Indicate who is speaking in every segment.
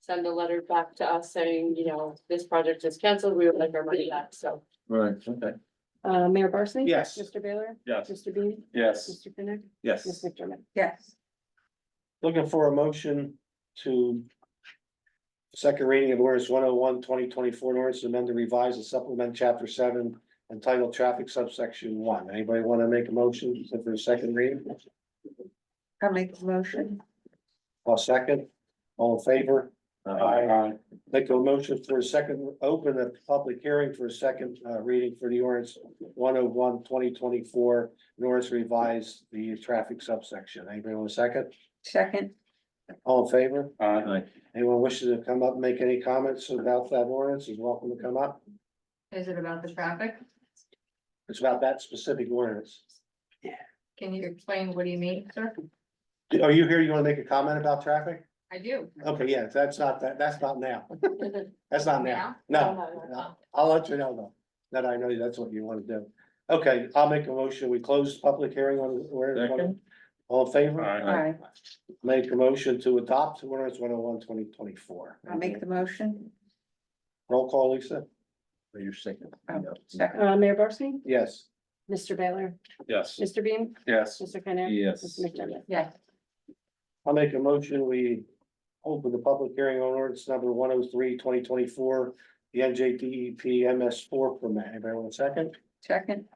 Speaker 1: send a letter back to us saying, you know, this project is canceled, we would like our money back, so.
Speaker 2: Right, okay.
Speaker 3: Uh, Mayor Barsney?
Speaker 2: Yes.
Speaker 3: Mr. Baylor?
Speaker 2: Yes.
Speaker 3: Mr. Bean?
Speaker 2: Yes,
Speaker 3: Mr. Kenneth? Ms.
Speaker 2: yes.
Speaker 3: McDermott?
Speaker 4: Yes.
Speaker 5: Looking for a motion to. Second reading of ordinance 101 2024, an ordinance to amend to revise and supplement chapter seven entitled traffic subsection one. Anybody want to make a motion for a second reading?
Speaker 4: I'll make the motion.
Speaker 5: I'll second. All in favor?
Speaker 2: Uh,
Speaker 5: Make a motion for a second, open the public hearing for a second uh reading for the ordinance 101 2024, In order to revise the traffic subsection. Anybody want a second?
Speaker 4: Second,
Speaker 5: All in favor?
Speaker 2: Aye.
Speaker 5: Anyone wishes to come up and make any comments about that ordinance is welcome to come up.
Speaker 6: Is it about the traffic?
Speaker 5: It's about that specific ordinance.
Speaker 6: Can you explain what do you mean, sir?
Speaker 5: Are you here? You want to make a comment about traffic?
Speaker 6: I do.
Speaker 5: Okay, yeah, that's not, that, that's not now. That's not now. No, no. I'll let you know though, that I know that's what you want to do. Okay, I'll make a motion. We close the public hearing on where.
Speaker 2: Second.
Speaker 5: All in favor?
Speaker 2: Aye.
Speaker 4: aye,
Speaker 5: Make a motion to adopt ordinance one oh one twenty twenty four.
Speaker 4: I'll make the motion.
Speaker 5: Roll call, Lisa?
Speaker 2: Are you second?
Speaker 4: Oh,
Speaker 2: No.
Speaker 4: Second,
Speaker 3: Uh, Mayor Barsney?
Speaker 5: Yes.
Speaker 3: Mr. Baylor?
Speaker 2: Yes.
Speaker 3: Mr. Bean?
Speaker 2: Yes.
Speaker 3: Mr. Kenneth?
Speaker 2: Yes.
Speaker 3: Ms. McDermott?
Speaker 6: Yes,
Speaker 5: I'll make a motion, we open the public hearing on ordinance number 103 2024, the NJDEP MS four permit. Anybody want a second?
Speaker 4: second,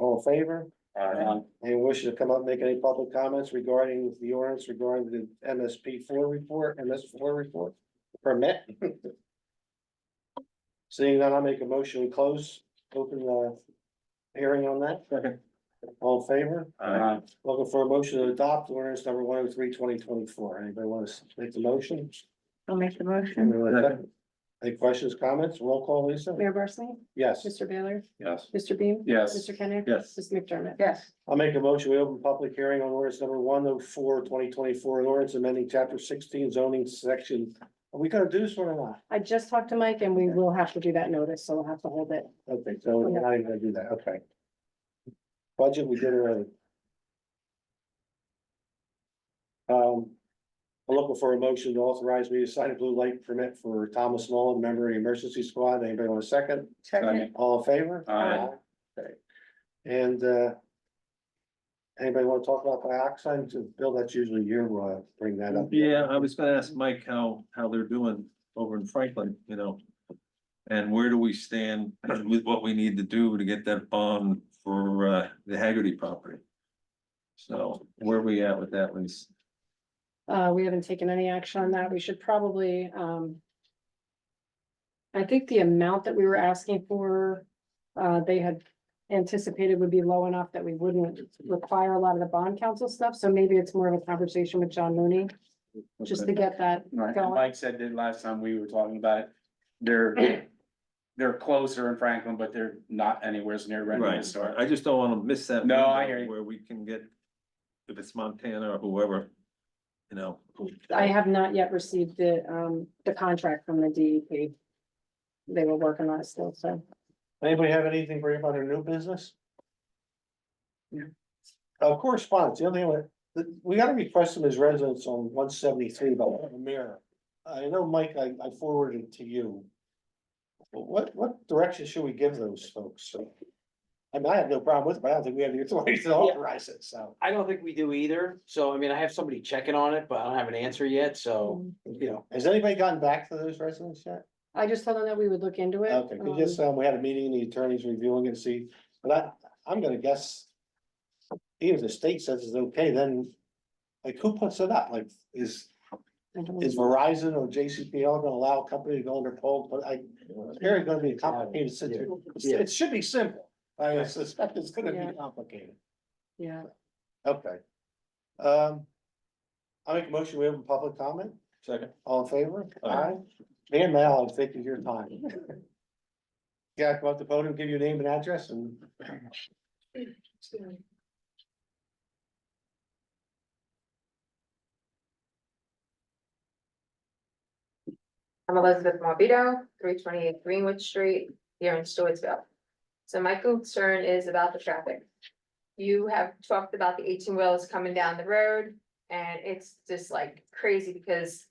Speaker 5: All in favor?
Speaker 2: Aye.
Speaker 5: Anyone wishing to come up, and make any public comments regarding the ordinance regarding the MSP four report, MS four report permit? Seeing that, I'll make a motion, we close, open the hearing on that.
Speaker 2: Second.
Speaker 5: All in favor?
Speaker 2: Aye.
Speaker 5: Looking for a motion to adopt ordinance number 103 2024. Anybody want to make the motion?
Speaker 4: I'll make the motion.
Speaker 5: Anyone want a second? Any questions, comments? Roll call, Lisa?
Speaker 3: Mayor Barsney?
Speaker 5: Yes.
Speaker 3: Mr. Baylor?
Speaker 2: Yes.
Speaker 3: Mr. Bean?
Speaker 2: Yes.
Speaker 3: Mr. Kenneth?
Speaker 2: Yes.
Speaker 3: Ms. McDermott?
Speaker 4: Yes,
Speaker 5: I'll make a motion, we open public hearing on ordinance number 104 2024, an ordinance amending chapter sixteen zoning section. Are we gonna do this one or not?
Speaker 3: I just talked to Mike and we will have to do that notice, so we'll have to hold it.
Speaker 5: Okay, so we're not even gonna do that, okay. Budget, we did already. Um, I'm looking for a motion to authorize me to sign a blue light permit for Thomas Nolan, member of the emergency squad. Anybody want a second?
Speaker 4: second,
Speaker 5: All in favor?
Speaker 2: Aye.
Speaker 5: Okay. And, uh. Anybody wanna talk about dioxin? To- Bill, that's usually you, uh, bring that up.
Speaker 2: Yeah, I was gonna ask Mike how, how they're doing over in Franklin, you know? And where do we stand with what we need to do to get that bond for, uh, the Haggerty property? So where are we at with that, Lisa?
Speaker 3: Uh, we haven't taken any action on that. We should probably, um. I think the amount that we were asking for, uh, they had anticipated would be low enough that we wouldn't require a lot of the bond council stuff. So maybe it's more of a conversation with John Mooney, just to get that
Speaker 7: Right, and
Speaker 3: going.
Speaker 7: Mike said that last time we were talking about it, they're, they're closer in Franklin, but they're not anywhere as near ready to
Speaker 2: Right,
Speaker 7: start.
Speaker 2: I just don't wanna miss that.
Speaker 7: No, I
Speaker 2: window
Speaker 7: hear you.
Speaker 2: Where we can get, if it's Montana or whoever, you know.
Speaker 3: I have not yet received the, um, the contract from the DEP. They were working on it still, so.
Speaker 5: Anybody have anything for about their new business?
Speaker 4: No.
Speaker 5: Of correspondence, the only one, the- we gotta request some of his residents on one seventy-three about the mirror. I know, Mike, I, I forwarded it to you. What, what direction should we give those folks? I mean, I have no problem with it, but I don't think we have the authority to authorize it, so.
Speaker 8: I don't think we do either, so I mean, I have somebody checking on it, but I don't have an answer yet, so, you know.
Speaker 5: Has anybody gotten back to those residents yet?
Speaker 3: I just told them that we would look into it.
Speaker 5: Okay, we just, um, we had a meeting, the attorney's reviewing it, and see, but I, I'm gonna guess. Even if the state says it's okay, then, like, who puts it up? Like, is,
Speaker 3: Um, I don't-
Speaker 5: is Verizon or JCPL gonna allow a company to go under poll? But I, it's very gonna be a complicated situation. It's- It should be simple. I suspect it's gonna
Speaker 3: Yeah.
Speaker 5: be complicated.
Speaker 3: Yeah,
Speaker 5: Okay. Um. I make a motion, we have a public comment?
Speaker 2: Second.
Speaker 5: All in favor?
Speaker 2: Aye.
Speaker 5: Aye. Man, Mal, I'm taking your time. Yeah, come up to the podium, give your name and address and.
Speaker 6: I'm Elizabeth Morbido, three twenty-eight Greenwood Street, here in Stewartsville. So my concern is about the traffic. You have talked about the eighteen wheels coming down the road, and it's just like crazy because